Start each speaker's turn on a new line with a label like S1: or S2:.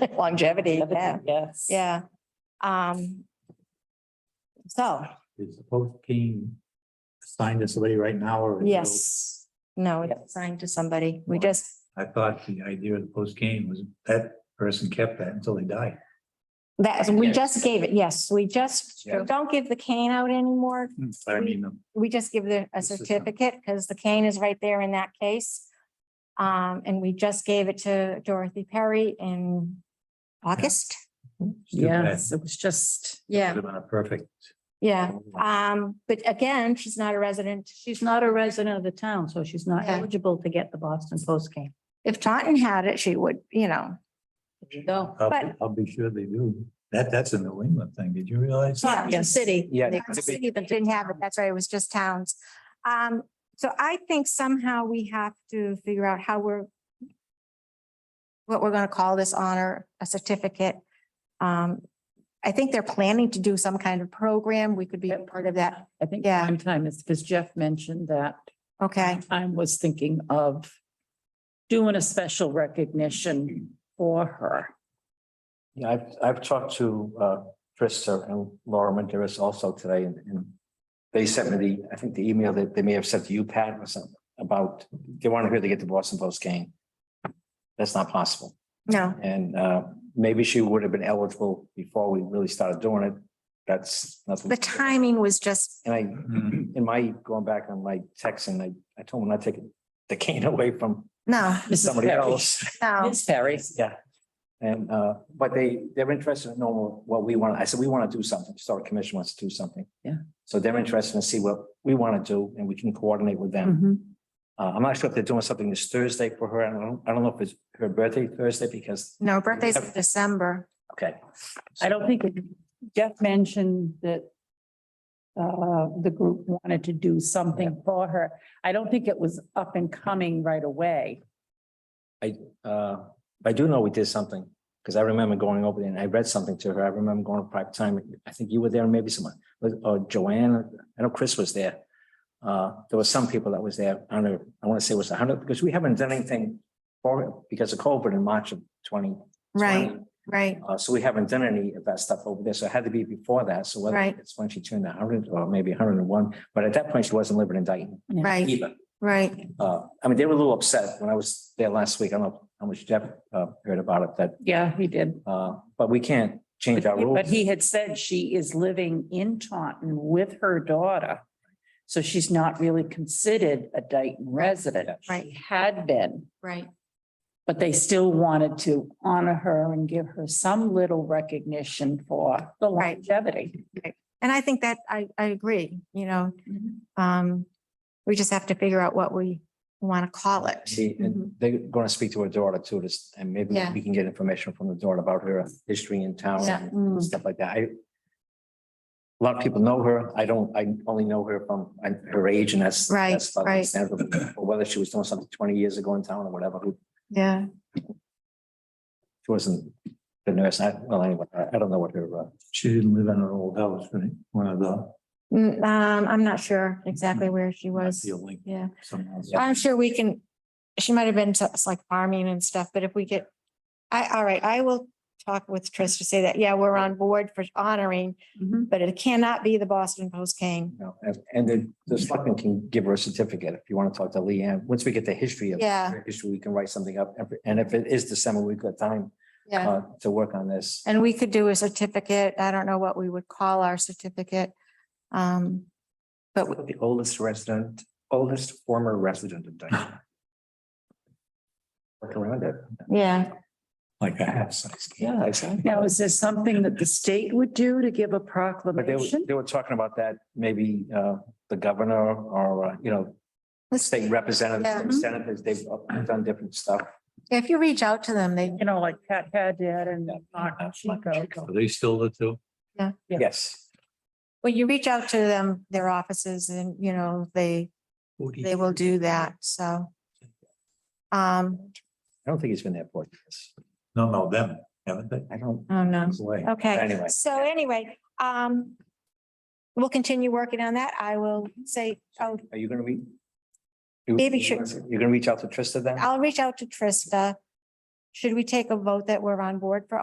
S1: longevity, yeah,
S2: Yes.
S1: yeah. Um. So,
S3: Is the post being assigned to somebody right now or? is it-
S1: yes, no, it's assigned to somebody. We just,
S3: I thought the idea of the post game was that person kept that until they died.
S1: that, we just gave it, yes, we just,
S3: Yeah.
S1: don't give the cane out anymore.
S3: But I mean, um,
S1: We just give the, a
S3: This is a-
S1: certificate because the cane is right there in that case. Um, and we just gave it to Dorothy Perry in August.
S3: it's too bad.
S2: Yes, it was just,
S1: Yeah,
S3: Would have been a perfect. Oh,
S1: yeah. Um, but again, she's not a resident.
S4: She's not a resident of the town, so she's not
S1: Yeah.
S4: eligible to get the Boston Post game.
S1: If Taunton had it, she would, you know,
S4: No.
S3: I'll,
S1: But-
S3: I'll be sure they do. That, that's a New England thing. Did you realize?
S1: Yeah.
S4: It's a city.
S5: Yeah.
S1: They Didn't have it, that's right, it was just towns. Um, so I think somehow we have to figure out how we're what we're gonna call this honor, a certificate. Um, I think they're planning to do some kind of program, we could be a part of that,
S2: I think
S1: Yeah.
S2: prime time is because Jeff mentioned that.
S1: okay?
S2: I was thinking of doing a special recognition for her.
S5: Yeah, I've, I've talked to, uh, Trista and Laura Manderis also today and, and they sent me the, I think the email that they may have sent to you, Pat, or something about, they want to hear they get the Boston Post game. That's not possible.
S1: No,
S5: And, uh, maybe she would have been eligible before we really started doing it. That's nothing.
S1: the timing was just,
S5: And I,
S3: Hmm.
S5: in my, going back on my text and I, I told him not taking the cane away from
S1: no,
S2: Mrs.
S5: somebody
S2: Perry.
S5: else.
S1: no,
S2: Miss Perry.
S5: Yeah. And, uh, but they, they're interested in knowing what we want. I said, we want to do something. Historic Commission wants to do something.
S2: Yeah.
S5: So they're interested in see what we want to do and we can coordinate with them.
S4: Mm-hmm.
S2: Mhm.
S5: Uh, I'm not sure if they're doing something this Thursday for her. I don't, I don't know if it's her birthday Thursday because,
S1: no, birthday's in December.
S5: okay.
S2: I don't think it- Jeff mentioned that uh, the group wanted to do something for her. I don't think it was up and coming right away.
S5: Uh, I do know we did something because I remember going over there and I read something to her. I remember going to private time. I think you were there, maybe someone, was- or Joanne, I know Chris was there. Uh, there was some people that was there. I don't know, I want to say it was a hundred because we haven't done anything for it because of COVID in March of twenty.
S1: Right, right,
S5: Uh, so we haven't done any of that stuff over there. So it had to be before that. So whether
S1: Right.
S5: it's when she turned a hundred or maybe hundred and one, but at that point she wasn't living in Dayton
S1: right,
S5: either.
S1: right.
S5: Uh, I mean, they were a little upset when I was there last week. I don't know how much Jeff, uh, heard about it, that
S2: Yeah, he did.
S5: uh, but we can't change our
S2: But
S5: rules.
S2: he had said she is living in Taunton with her daughter. So she's not really considered a Dayton resident.
S1: Right.
S2: She Had been.
S1: Right.
S2: But they still wanted to honor her and give her some little recognition for the
S1: Right.
S2: longevity.
S1: And I think that I, I agree, you know,
S2: Mhm.
S1: um, we just have to figure out what we want to call it.
S5: She, and they're gonna speak to her daughter too, just, and maybe
S1: mm-hmm. Yeah.
S5: we can get information from the daughter about her history in town
S1: Yeah. Mm-hmm.
S5: and stuff like that. I. A lot of people know her. I don't, I only know her from I- her age and that's.
S1: Right,
S5: that's not
S1: right.
S5: understandable, Or whether she was doing something twenty years ago in town or whatever, who-
S1: Yeah,
S5: she wasn't the nurse. I, well, anyway, I I don't know what her, uh,
S3: She didn't live in an old house, right? One of the.
S1: Mm, um, I'm not sure exactly where she
S3: might
S1: was.
S3: be a link
S1: Yeah,
S3: somewhere else.
S1: I'm sure we can, she might have been to it's like farming and stuff, but if we get, I, all right, I will talk with Trish to say that, yeah, we're on board for honoring,
S2: Mhm.
S1: but it cannot be the Boston Post cane.
S5: you know, and, and the, the selectmen can give her a certificate if you want to talk to Leanne. Once we get the history of.
S1: Yeah,
S5: issue, we can write something up. and- And if it is December, we've got time
S1: yeah.
S5: uh, to work on this.
S1: And we could do a certificate. I don't know what we would call our certificate. Um, but we-
S5: The oldest resident, oldest former resident of Dayton. Work around it.
S1: yeah,
S3: Like a half size.
S2: Yeah.
S5: exactly.
S2: Now, is there something that the state would do to give a
S5: But they were,
S2: proclamation?
S5: they were talking about that, maybe uh, the governor or, uh, you know,
S1: Let's-
S5: state
S1: Yeah.
S5: representatives, senators, they've done different stuff.
S1: if you reach out to them, they,
S2: You know, like Pat had did and Martin Chico.
S3: Are they still the two?
S2: Yeah.
S5: Yes.
S1: Well, you reach out to them, their offices, and you know, they, they will do that, so. Um,
S5: I don't think he's been there for years.
S3: No, no, them, haven't they?
S5: I don't,
S1: oh no,
S5: it's way.
S1: okay,
S5: Anyway.
S1: so anyway, um. We'll continue working on that. I will say, oh,
S5: Are you gonna read? You-
S1: Maybe
S5: you-
S1: should-
S5: You're gonna reach out to Trista then?
S1: I'll reach out to Trista. Should we take a vote that we're on board for